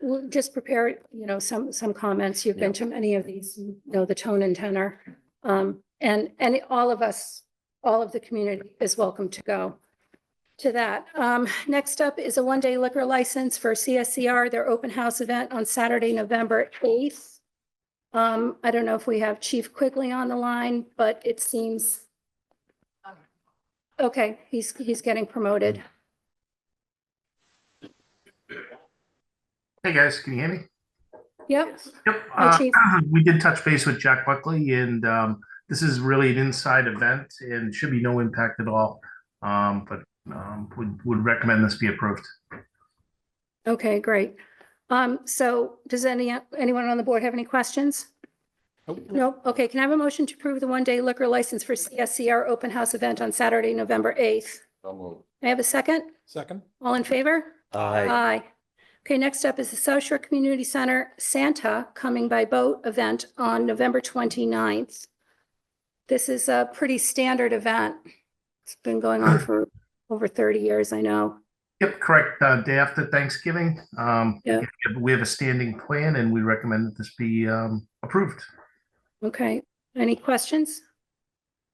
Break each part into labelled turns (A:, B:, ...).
A: we'll just prepare, you know, some, some comments. You've been to many of these, you know the tone and tenor. Um, and, and all of us, all of the community is welcome to go to that. Um, next up is a one-day liquor license for CSCR, their open house event on Saturday, November eighth. Um, I don't know if we have Chief Quigley on the line, but it seems okay, he's, he's getting promoted.
B: Hey guys, can you hear me?
A: Yep,
B: Yep.
A: Hi,
B: uh,
A: Chief.
B: We did touch base with Jack Buckley and um, this is really an inside event and should be no impact at all. Um, But um, would, would recommend this be approved.
A: okay, great. Um, so does any, anyone on the board have any questions? No, okay, can I have a motion to approve the one-day liquor license for CSCR open house event on Saturday, November eighth?
C: So moved.
A: May I have a second?
D: Second?
A: All in favor?
C: Aye.
A: Aye. Okay, next up is the South Shore Community Center Santa Coming by Boat event on November 29th. This is a pretty standard event. It's been going on for over 30 years, I know.
B: Yep, correct. uh, Day after Thanksgiving. Um,
A: Yeah.
B: We have a standing plan and we recommend that this be um, approved.
A: Okay, any questions?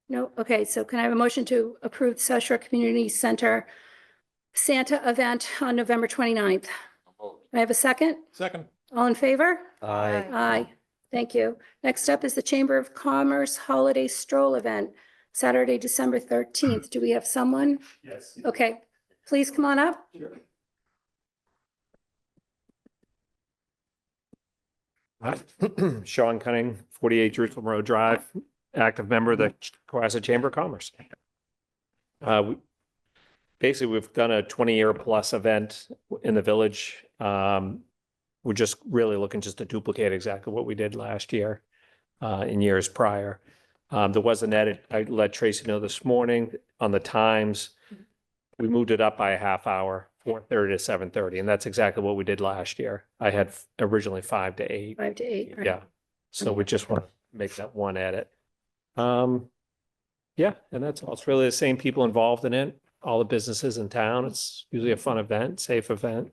A: No, okay, so can I have a motion to approve South Shore Community Center Santa event on November 29th?
C: So moved.
A: I have a second?
D: Second?
A: All in favor?
C: Aye.
A: Aye, thank you. Next up is the Chamber of Commerce Holiday Stroll Event, Saturday, December thirteenth. Do we have someone?
B: Yes.
A: Okay, please come on up.
E: Hi, Sean Cunning, 48 Jerusalem Road Drive, active member of the Cohasset Chamber of Commerce. Uh, we- Basically, we've done a 20-year plus event in the village. Um, We're just really looking just to duplicate exactly what we did last year uh, in years prior. Um, There was an edit, I let Tracy know this morning on the times. We moved it up by a half hour, 4:30 to 7:30, and that's exactly what we did last year. I had originally five to eight.
A: Five to eight. right?
E: Yeah, so we just want to make that one edit. Um, yeah, and that's all. It's really the same people involved in it, all the businesses in town. It's usually a fun event, safe event.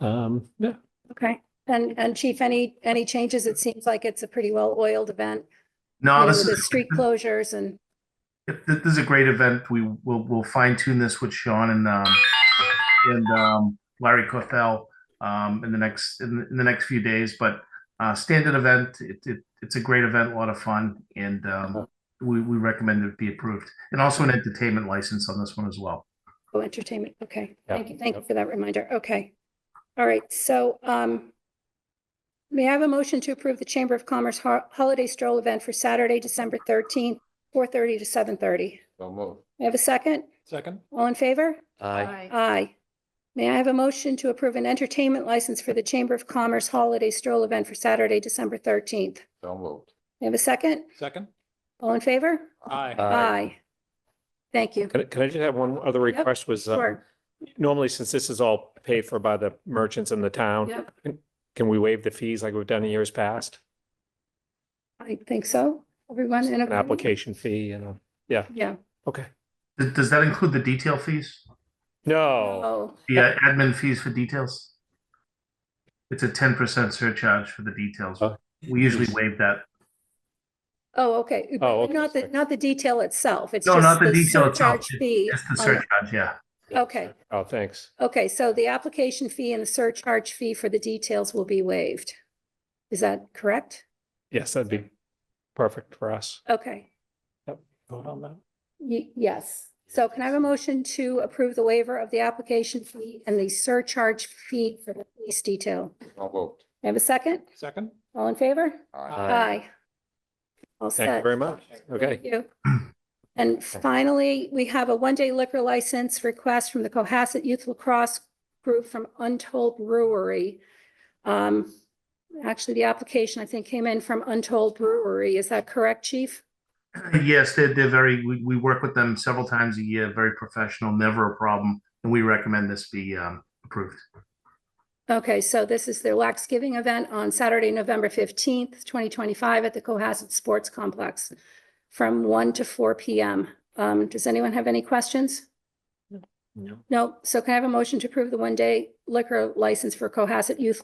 E: Um, yeah,
A: Okay, and, and Chief, any, any changes? It seems like it's a pretty well-oiled event. you
B: No,
A: know,
B: this
A: with The
B: is,
A: street closures and,
B: Yep, th- This is a great event. We will, we'll fine tune this with Sean and, um, and, um, Larry Clothell, um, in the next, in, the- in the next few days, but, uh, standard event, it, it, it's a great event, a lot of fun, and, um, we, we recommend it be approved, and also an entertainment license on this one as well.
A: oh, entertainment. Okay,
E: Yeah,
A: thank you, thank you
E: yeah.
A: for that reminder. Okay. All right, so, um, may I have a motion to approve the Chamber of Commerce Ho- Holiday Stroll Event for Saturday, December thirteenth, four thirty to seven thirty?
C: So moved.
A: May I have a second?
D: Second?
A: All in favor?
C: Aye.
A: Aye. May I have a motion to approve an entertainment license for the Chamber of Commerce Holiday Stroll Event for Saturday, December thirteenth?
C: So moved.
A: May I have a second?
D: Second?
A: All in favor?
D: Aye.
C: Aye.
A: Thank you.
E: can, I- can I just have one other
A: Yep,
E: request was, um,
A: Sure.
E: normally since this is all paid for by the merchants in the town,
A: Yep.
E: can- can we waive the fees like we've done in years past?
A: I think so. Everyone in
E: An
A: agreement?
E: application fee and, a-
A: Yeah.
E: okay.
B: Does, does that include the detail fees?
E: No,
A: Oh.
B: The uh, admin fees for details? It's a ten percent surcharge for the details.
E: Oh.
B: We usually waive that.
A: Oh, okay.
E: Oh, okay,
A: Not the,
E: sorry.
A: not the detail itself. It's
B: No,
A: just
B: not the detail itself,
A: surcharge fee.
B: It's the
A: on the-
B: surcharge, yeah.
A: Okay,
E: oh, thanks.
A: okay. So the application fee and the surcharge fee for the details will be waived. Is that correct?
E: Yes, that'd be perfect for us.
A: Okay.
E: Vote on that.
A: Ye- Yes. So can I have a motion to approve the waiver of the application fee and the surcharge fee for the police detail?
C: So moved.
A: May I have a second?
D: Second?
A: All in favor?
C: Aye.
A: Aye. All
E: Thank you
A: set.
E: very much. Okay.
A: Thank you. And finally, we have a one-day liquor license request from the Cohasset Youth Lacrosse Group from Untold Brewery. Um, actually, the application, I think, came in from Untold Brewery. Is that correct, Chief?
B: Yes, they're, they're very, we, we work with them several times a year, very professional, never a problem, and we recommend this be um, approved.
A: Okay, so this is their lax giving event on Saturday, November fifteenth, twenty twenty-five at the Cohasset Sports Complex from one to four P M. Um, does anyone have any questions?
E: No.
A: No, so can I have a motion to approve the one-day liquor license for Cohasset Youth